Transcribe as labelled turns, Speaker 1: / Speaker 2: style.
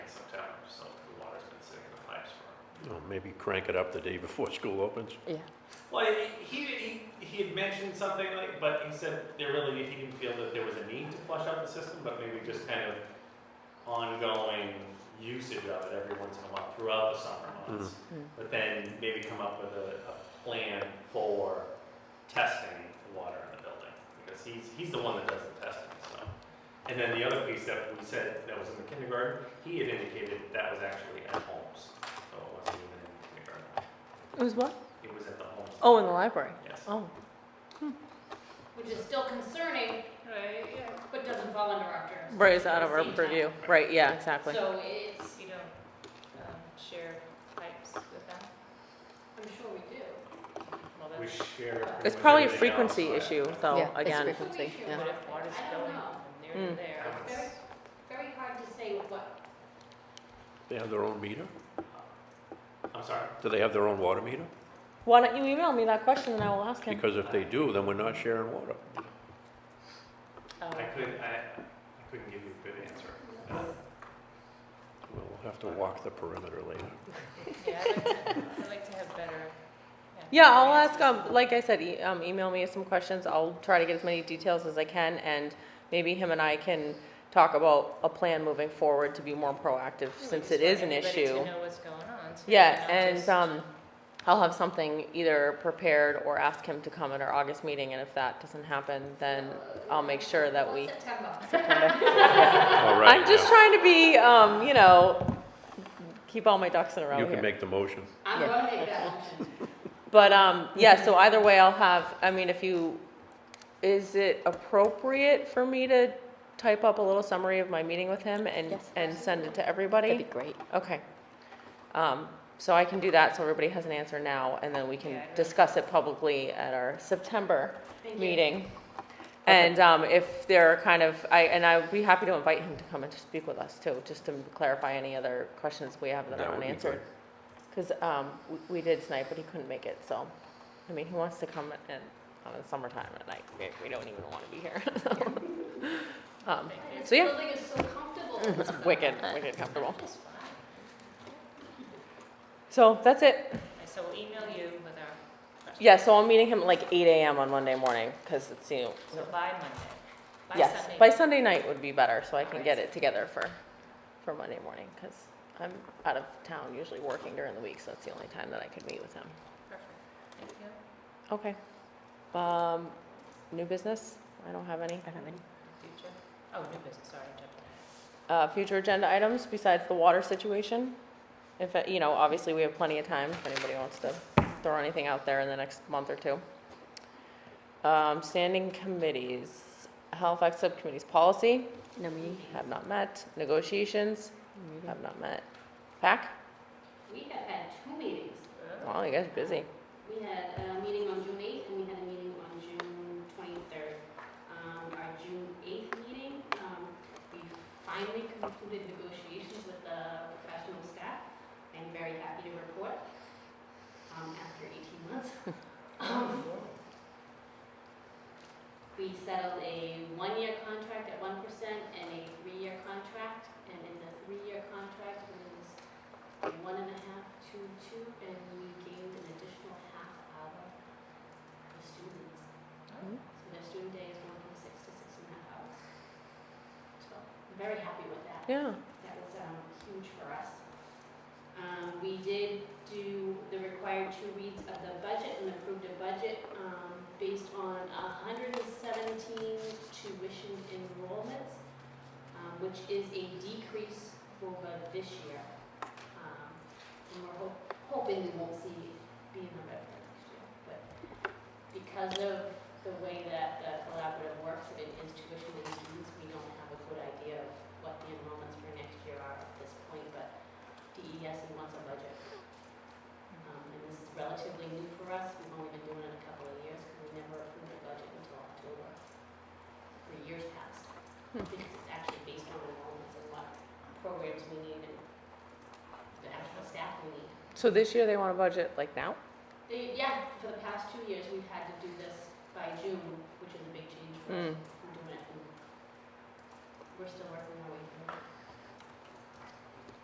Speaker 1: you know, maybe crank it up the day before school opens.
Speaker 2: Yeah.
Speaker 3: Well, he, he, he had mentioned something like, but he said there really, he didn't feel that there was a need to flush out the system, but maybe just kind of ongoing usage of it every once in a while throughout the summer months.
Speaker 2: Mm.
Speaker 3: But then maybe come up with a, a plan for testing the water in the building, because he's, he's the one that does the testing, so. And then the other piece that we said that was in the kindergarten, he had indicated that was actually at homes, so it wasn't even in the kindergarten,
Speaker 2: It was what?
Speaker 3: it was at the homes.
Speaker 2: Oh, in the library.
Speaker 3: Yes.
Speaker 2: Oh.
Speaker 4: Which is still concerning, but doesn't fall under our jurisdiction.
Speaker 2: Right, it's out
Speaker 4: at
Speaker 2: of
Speaker 4: the
Speaker 2: our
Speaker 4: same time.
Speaker 2: purview. Right, yeah, exactly.
Speaker 4: So it's, you know, um, share pipes with them? I'm sure we do. Well,
Speaker 3: We
Speaker 4: that's.
Speaker 3: share. it
Speaker 2: It's
Speaker 3: with
Speaker 2: probably a
Speaker 3: everything else,
Speaker 2: frequency
Speaker 3: so I-
Speaker 2: issue,
Speaker 5: Yeah,
Speaker 2: though,
Speaker 5: it's
Speaker 2: Oh, again.
Speaker 5: frequent. frequency, yeah.
Speaker 4: But if water's I don't going know.
Speaker 5: from
Speaker 4: There to
Speaker 2: Mm.
Speaker 3: I
Speaker 4: there.
Speaker 3: don't know.
Speaker 4: Very, very hard to say what,
Speaker 1: They have their own meter?
Speaker 3: I'm sorry.
Speaker 1: Do they have their own water meter?
Speaker 2: Why don't you email me that question and I will ask him?
Speaker 1: Because if they do, then we're not sharing water.
Speaker 2: Oh.
Speaker 3: I couldn't, I, I couldn't give you a good answer. Uh,
Speaker 1: We'll have to walk the perimeter later.
Speaker 5: Yeah, I'd like to- I'd like to have better.
Speaker 2: Yeah, I'll ask, um, like I said, e- um, email me some questions. I'll try to get as many details as I can and maybe him and I can talk about a plan moving forward to be more proactive since it is an issue.
Speaker 5: Everybody to know what's going on. so they're
Speaker 2: Yeah,
Speaker 5: not
Speaker 2: and,
Speaker 5: just-
Speaker 2: um, I'll have something either prepared or ask him to come at our August meeting and if that doesn't happen, then I'll make sure that we.
Speaker 4: September.
Speaker 1: All right.
Speaker 2: I'm just
Speaker 1: now,
Speaker 2: trying to be, um, you know, keep all my ducks in a row
Speaker 1: You
Speaker 2: here.
Speaker 1: can make the motion.
Speaker 4: I'm
Speaker 2: Yeah.
Speaker 4: gonna make that motion.
Speaker 2: But um, yeah,
Speaker 5: Mm-hmm.
Speaker 2: so either way, I'll have, I mean, if you, is it appropriate for me to type up a little summary of my meeting with him and,
Speaker 5: Yes.
Speaker 2: and send it to
Speaker 5: That'd be
Speaker 2: everybody?
Speaker 5: great.
Speaker 2: Okay. Um, so I can do that, so everybody has an answer now, and then we
Speaker 5: Yeah,
Speaker 2: can
Speaker 5: I know.
Speaker 2: discuss it publicly at our September
Speaker 4: Thank you.
Speaker 2: meeting. And um, if there are kind of, I, and I would be happy to invite him to come and to speak with us too, just to clarify any other questions we have that
Speaker 1: That
Speaker 2: are
Speaker 1: would be
Speaker 2: unanswered. Because um, we did tonight, but he couldn't make it, so, I mean, he wants to come in, on the summertime at night, we, we don't even want to be here. so. Um,
Speaker 4: And This
Speaker 2: So, yeah.
Speaker 4: building is so comfortable.
Speaker 2: It's wicked, wicked comfortable.
Speaker 4: It's fine.
Speaker 2: So that's it.
Speaker 5: So we'll email you with our,
Speaker 2: Yeah, so I'm meeting him at like eight AM on Monday morning, because it's, you know,
Speaker 5: so by Monday, by
Speaker 2: Yes,
Speaker 5: Sunday.
Speaker 2: by Sunday night would be better, so I can get it together for, for Monday morning, because I'm out of town, usually working during the week, so that's the only time that I could meet with him.
Speaker 5: Perfect. Thank you.
Speaker 2: Okay. Um, new business? I don't have any.
Speaker 5: I don't have any. Future. Oh, new business, sorry, I jumped ahead.
Speaker 2: Uh, future agenda items besides the water situation? If, uh, you know, obviously, we have plenty of time if anybody wants to throw anything out there in the next month or two. Um, standing committees, Halifax Subcommittee's policy,
Speaker 5: No meeting?
Speaker 2: have not met. Negotiations, have not met. PAC?
Speaker 4: We have had two meetings.
Speaker 2: Wow, you guys are busy.
Speaker 4: We had a meeting on June eighth and we had a meeting on June twenty-third. Um, our June eighth meeting, um, we finally concluded negotiations with the professional staff. I'm very happy to report, um, after eighteen months. Um, We settled a one-year contract at one percent and a three-year contract, and in the three-year contract was one and a half, two, two, and we gained an additional half hour for students.
Speaker 2: Mm.
Speaker 4: So their student day is going from six to six and a half hours. So, I'm very happy with that.
Speaker 2: Yeah.
Speaker 4: That was um, huge for us. Um, We did do the required two reads of the budget and approved a budget um, based on 117 tuition enrollments, um, which is a decrease over this year. Um, And we're hop- hoping we won't see be in the red for next year. But because of the way that the collaborative works, if it is tuition and students, we don't have a good idea of what the enrollments for next year are at this point, but DES wants a budget. Um, and this is relatively new for us, we've only been doing it a couple of years, because we never approved a budget until October, for years past.
Speaker 2: Hmm.
Speaker 4: Because it's actually based on enrollments and what programs we need and the actual staff we need.
Speaker 2: So this year they want a budget like now?
Speaker 4: They, yeah, for the past two years, we've had to do this by June, which is a big change for us.
Speaker 2: Mm.
Speaker 4: from doing it, and we're still working our way